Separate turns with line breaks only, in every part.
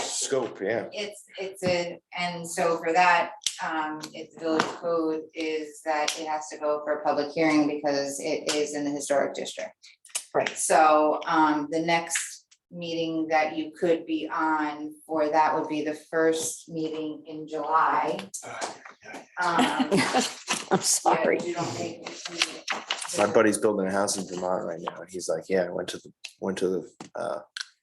scope, yeah.
It's, it's a, and so for that, um, if the village code is that it has to go for a public hearing because it is in the historic district.
Right.
So, um, the next meeting that you could be on for that would be the first meeting in July. Um,
I'm
yeah,
sorry.
you don't think.
My buddy's building a house in Vermont right now. He's like, yeah, I went to the, went to the uh,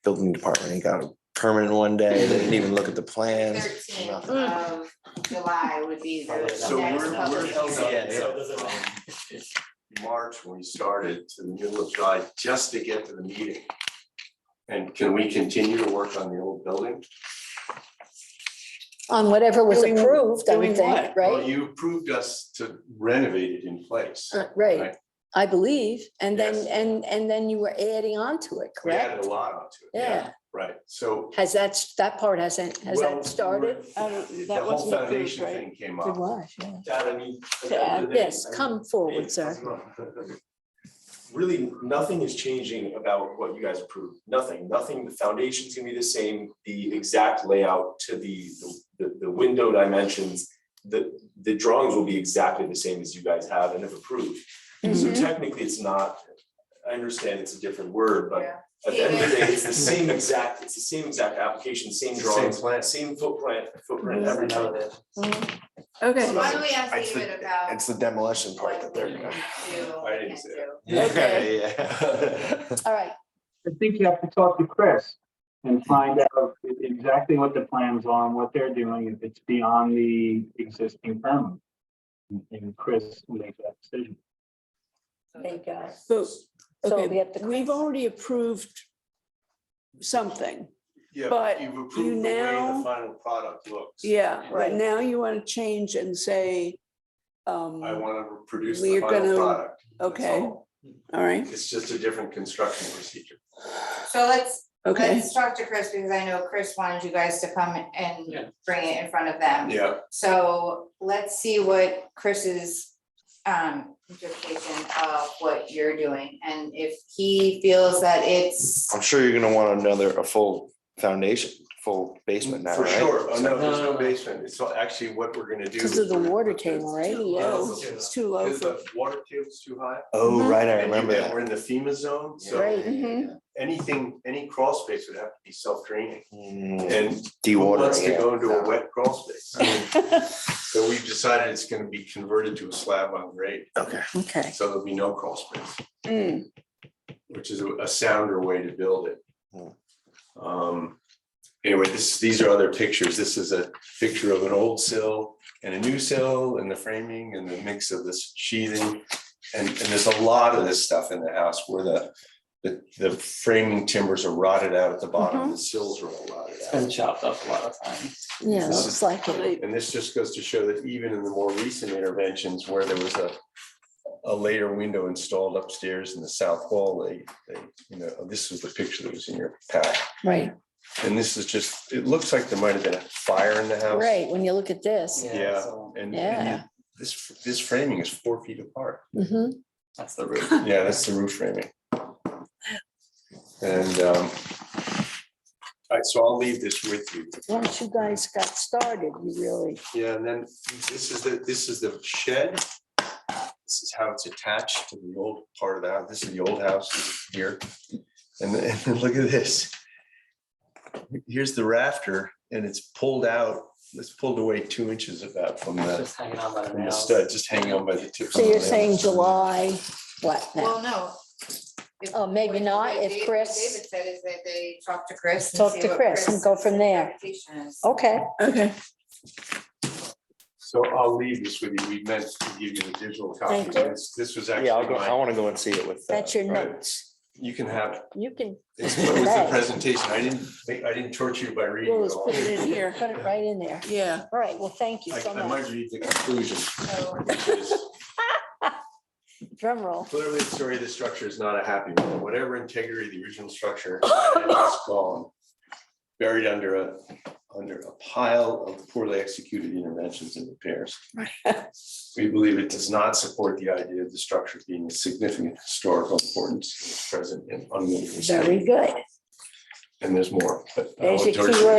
building department and got a permit in one day. They didn't even look at the plans.
Thirteenth
nothing.
of July would be the next
So we're, we're
public
held
hearing.
up from March when we started to the middle of July, just to get to the meeting. And can we continue to work on the old building?
On whatever was
Doing-
approved, I
doing
would
what?
think,
Well,
right?
you approved us to renovate it in place.
Uh, Right,
right.
I believe. And then,
Yes.
and, and then you were adding on to it,
We added
correct?
a lot onto it.
Yeah.
Right, so.
Has that, s- that part hasn't, has
well,
that started?
Um,
The
that
whole
wasn't approved,
foundation
right?
thing came
It
up.
was, yeah.
To add-
Yes, come forward, sir.
Really, nothing is changing about what you guys approved, nothing, nothing, the foundation's gonna be the same, the exact layout to the, the, the window dimensions. The, the drawings will be exactly the same as you guys have and have approved, so
Mm-hmm.
technically it's not, I understand it's a different word, but
Yeah.
at the end of the day, it's the same exact, it's the same exact application, same
It's the same
drawings,
plan.
same footprint, footprint, everything.
Mm-hmm.
Okay,
Why don't we ask
It's the-
David about?
It's the demolition part that
what we
they're.
can
gonna-
do,
I didn't
can't
say
do.
Okay.
Yeah.
All right,
I think you have to talk to Chris and find out exactly what the plans are and what they're doing, if it's beyond the existing permit. And Chris will make that decision.
thank God.
but,
So we
okay,
have to-
we've already approved something.
Yeah,
But
you've
you
approved the way the
now-
final product looks.
Yeah, but
Right.
now you want to change and say, um,
I
all
wanna produce the
We're
final
gonna-
product. That's
okay.
all.
right,
It's just a different construction procedure.
So let's,
okay.
let's talk to Chris because I know Chris wanted you guys to come and bring it in front of them.
Yeah,
So let's see what Chris's um interpretation of what you're doing and if he feels that it's.
I'm sure you're gonna want another, a full foundation, full basement now,
For
right?
sure. Oh, no, there's
No,
no
no.
basement. It's all- actually what we're gonna do.
Because of
is
the
we're gonna
water
put the-
table, right?
Too low, it's too low
Because
for,
the water table's too high.
Oh, right, I
And
remember
we're-
that.
We're in the FEMA zone, so
Right.
mm-hmm. anything, any crawl space would have to be self-draining.
Mm,
And who wants
Dewatering,
to
yeah.
go into a wet crawl space? I mean, So we've decided it's gonna be converted to a slab on grade,
Okay,
Okay.
so there'll be no crawl space.
Mm,
which is a a sounder way to build it.
Hmm.
Um, anyway, this, these are other pictures. This is a picture of an old sill and a new sill and the framing and the mix of this sheathing. And, and there's a lot of this stuff in the house where the, the, the framing timbers are rotted out at the bottom, the sills are all rotted
It's been
out.
chopped up a lot of times.
Yeah,
This
looks like it.
And this just goes to show that even in the more recent interventions where there was a, a later window installed upstairs in the south wall, they, they, you know, oh, this was the picture that was in your pack.
Right,
And this is just, it looks like there might have been a fire in the house.
right. When you look at this.
Yeah.
so
And,
Yeah.
and this, this framing is four feet apart.
Mhm.
That's the roof.
Yeah, that's the roof framing. And, um, all right, so I'll leave this with you.
Mm, Once you guys got started, you really,
Yeah, and then this is the, this is the shed. This is how it's attached to the old part of the house. This is the old house this is here. And then, and then look at this. Here's the rafter and it's pulled out, it's pulled away two inches about from
It's
the,
Just hanging on by the
from the
nails.
stud, just hanging on by the tips.
so
of the
you're
nails.
saying July, what now?
Well, no. If-
Oh, maybe
what-
not,
what
if
Dave-
Chris-
David said is that they talk to Chris. and
Talk
see
to
what
Chris and go from there. Oh,
interpretation is.
Okay,
okay,
So I'll leave this with you. We meant to give you the digital copy.
Thank you.
This this was actually
yeah, I'll go, I
mine.
wanna go and see it with. uh,
that's your
right.
notes.
You can have it.
You can
It's it was the
Right.
presentation. I didn't, think- I didn't torture you by reading
well,
it
let's
all.
put it in here,
put it right in there.
yeah.
All right, well, thank you
I,
so
I might
much.
read the conclusion,
Oh.
So
which is
Drum roll.
clearly the story of the structure is not a happy one. Whatever integrity of the original structure had is gone, buried under a, under a pile of poorly executed interventions and repairs. We believe it does not support the idea of the structure being of significant historical importance in its present and unmoving. state.
Very good.
And there's more, but. I
There's
won't
your
torture you.
keyword.